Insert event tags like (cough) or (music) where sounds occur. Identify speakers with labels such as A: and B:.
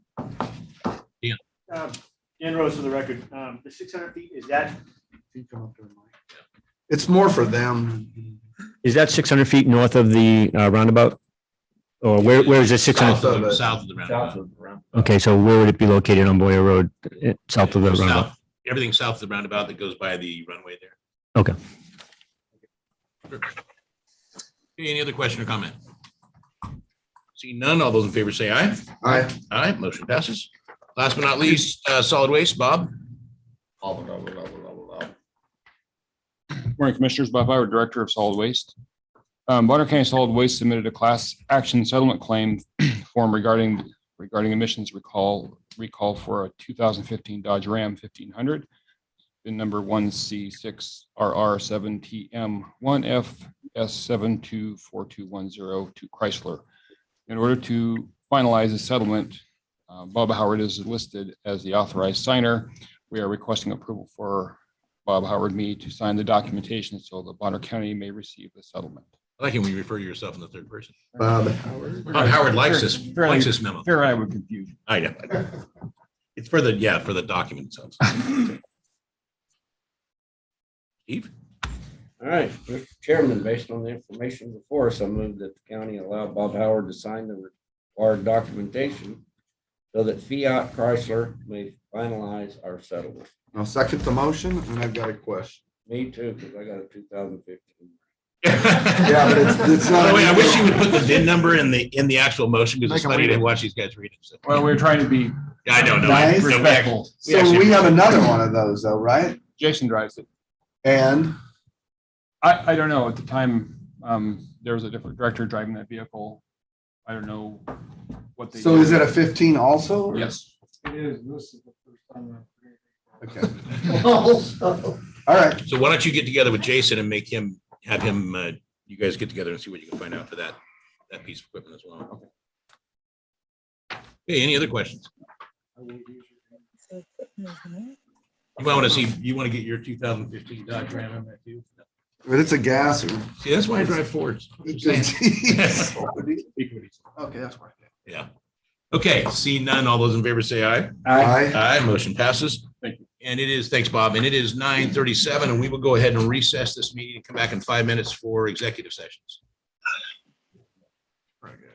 A: um, Dan Rose for the record, um, the six hundred feet, is that?
B: It's more for them.
C: Is that six hundred feet north of the uh, roundabout? Or where, where is it six
B: South of
C: hundred?
B: it.
D: South of the roundabout.
C: Okay, so where would it be located on Boyer Road, Eh, south of the
D: South-
C: roundabout?
D: Everything south of the roundabout that goes by the runway there.
C: Okay.
D: Sure. Okay, Any other question or comment? Seeing none, all those in favor say aye.
B: All right.
D: Aye, motion passes. Last but not least, uh, solid waste, Bob.
E: Morning Commissioners, Bob Howard, Director of Solid Waste. Um, Bonner County Solid Waste submitted a class action settlement claim (clears throat) form regarding regarding emissions recall recall for a two thousand fifteen Dodge Ram fifteen hundred. In number one C six RR seven TM one F S seven two four two one zero to Chrysler. In order to finalize the settlement, uh, Bob Howard is listed as the authorized signer. We are requesting approval for Bob Howard me to sign the documentation so the Bonner County may receive the settlement.
D: I like it when you refer to yourself in the third person.
B: Bob Howard.
D: Bob Howard likes this,
E: Fairly-
D: likes this memo.
E: Fair, I would confuse.
D: I know. It's for the, yeah, for the document itself. Steve?
F: All right, Mr. Chairman, based on the information before us, I move that the county allow Bob Howard to sign the required documentation so that Fiat Chrysler may finalize our settlement.
B: I'll second the motion and I've got a question.
F: Me too, because I got a two thousand fifteen.
B: Yeah, but it's, it's
D: By
B: not.
D: the way, I wish you would put the VIN number in the, in the actual motion because
E: Make
D: it's
E: 'em
D: funny
E: read
D: to
E: it.
D: watch these guys read it. so.
E: Well, we're trying to be
D: Yeah, I don't know.
B: Nice.
D: No, we actually-
E: respectful.
B: So we have another one of those though, right?
E: Jason drives it.
B: And
E: I, I don't know, at the time, um, there was a different director driving that vehicle. I don't know what they.
B: so is it a fifteen also?
E: Yes.
A: It is, this is the first time.
B: Okay. (laughs) All right.
D: So why don't you get together with Jason and make him, have him, uh, you guys get together and see what you can find out for that, that piece of equipment as well. Hey, any other questions? You might want to see, you want to get your two thousand fifteen Dodge Ram in that too?
B: But it's a gas. or-
D: See, that's why I drive Fords.
B: (laughs) Okay, that's right.
D: Yeah. Okay, see none. All those in favor say aye.
B: Aye.
D: Aye, motion passes.
E: Thank
D: you. And it is, thanks, Bob. And it is nine thirty-seven, and we will go ahead and recess this meeting and come back in five minutes for executive sessions.